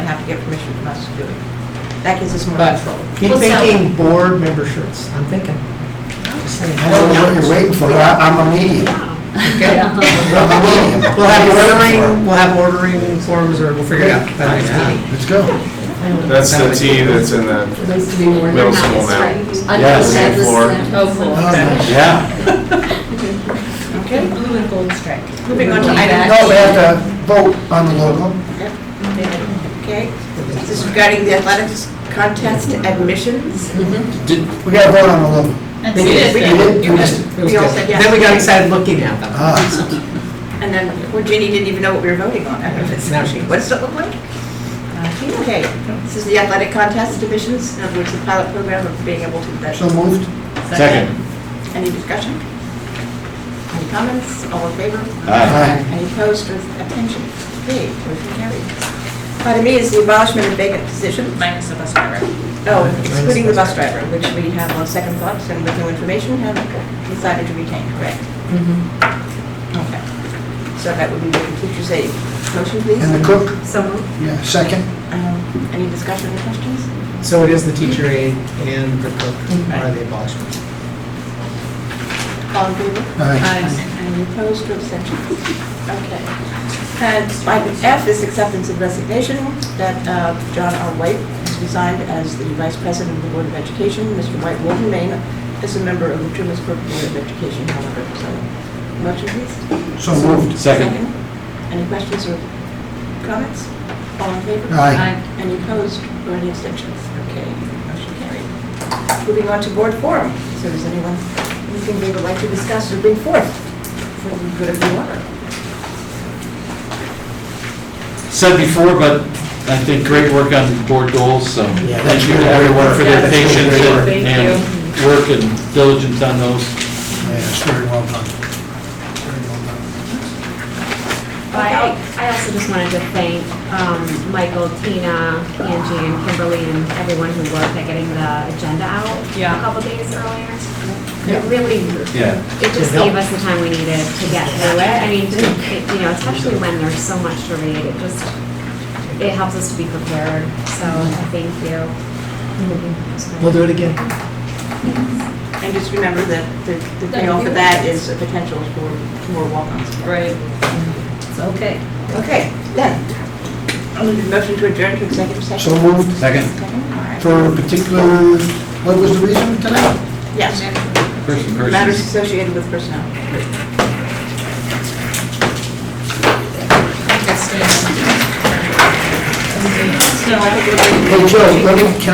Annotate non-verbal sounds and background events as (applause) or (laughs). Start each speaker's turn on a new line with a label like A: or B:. A: get permission from us to do it. That gives us more
B: But
A: control.
B: keep
C: Well, so-
B: thinking board member shirts, I'm thinking. Just saying.
D: I don't know what you're waiting for, I- I'm a medium. I'm a medium.
B: (laughs) We'll have ordering, we'll have ordering forms, or we'll figure it out. by the next meeting.
D: Let's go.
E: That's the tea that's in the
C: Needs to be more.
E: middle school now.
D: Yes.
C: Oh, cool.
D: Yeah.
A: Okay.
C: Blue and gold stripe.
A: Moving on to
D: No,
A: item
D: we have to vote on the logo.
A: Okay, this is regarding the athletics contest admissions.
D: We gotta vote on the logo.
C: That's
B: We did.
C: it.
D: We did,
B: You
D: we
B: missed
D: did.
B: it. It was
A: We all
B: good.
A: said yes.
B: Then we got excited looking at them.
D: Ah,
A: And then, well, Ginny didn't even know what we were voting on.
B: Now she- Uh,
A: What does it look like? Okay, this is the athletic contest admissions, in other words, the pilot program of being able to,
D: so moved.
F: Second.
A: any discussion? Any comments? All in favor?
D: Aye.
A: Any opposed or abstentions? Okay, motion carried. Item E is the abolishment of vacant positions.
C: Minus the bus driver.
A: Oh, excluding the bus driver, which we have on second thoughts and with new information have decided to retain, correct?
C: Mm-hmm.
A: Okay. So that would be the teacher's aid. Motion, please?
D: And the cook,
A: So Um,
D: yeah, second.
A: Any discussion or questions?
B: So it is the teacher aide and the cook are the abolishments.
A: All in favor?
D: Aye.
A: Any opposed or abstentions? Okay. And item F is acceptance of resignation that uh, John R. White has resigned as the Vice President of the Board of Education. Mr. White will remain as a member of the Trumansburg Board of Education, however, so. Motion, please?
D: So moved.
F: Second.
A: Any questions or comments? All in favor?
D: Aye.
A: Any opposed or any abstentions? Okay, motion carried. Moving on to board forum. So does anyone, anything they would like to discuss or bring forth for the good of the order?
F: Said before, but I think great work on board goals, so
D: Yeah,
F: thank you to everyone for their patience and- and work and diligence on those.
D: Yes, very well done. Very well done.
G: I I also just wanted to thank um, Michael, Tina, Angie, and Kimberly, and everyone who worked at getting the agenda out
C: Yeah.
G: a couple days earlier. It really,
F: Yeah.
G: it just gave us the time we needed to get through it. I mean, to- it- you know, especially when there's so much to read, it just, it helps us to be prepared, so thank you.
B: We'll do it again.
A: And just remember that the the payoff for that is a potential for more walk-ons.
C: Right. It's okay.
A: Okay, then. I'll need a motion to adjourn to executive session.
D: So moved.
F: Second.
A: Second, all right.
D: For a particular, what was the reason tonight?
A: Yes,
F: First and first.
A: matters associated with personnel.
C: That's good.
A: So I think we're-
D: Hey, Joe, let me, can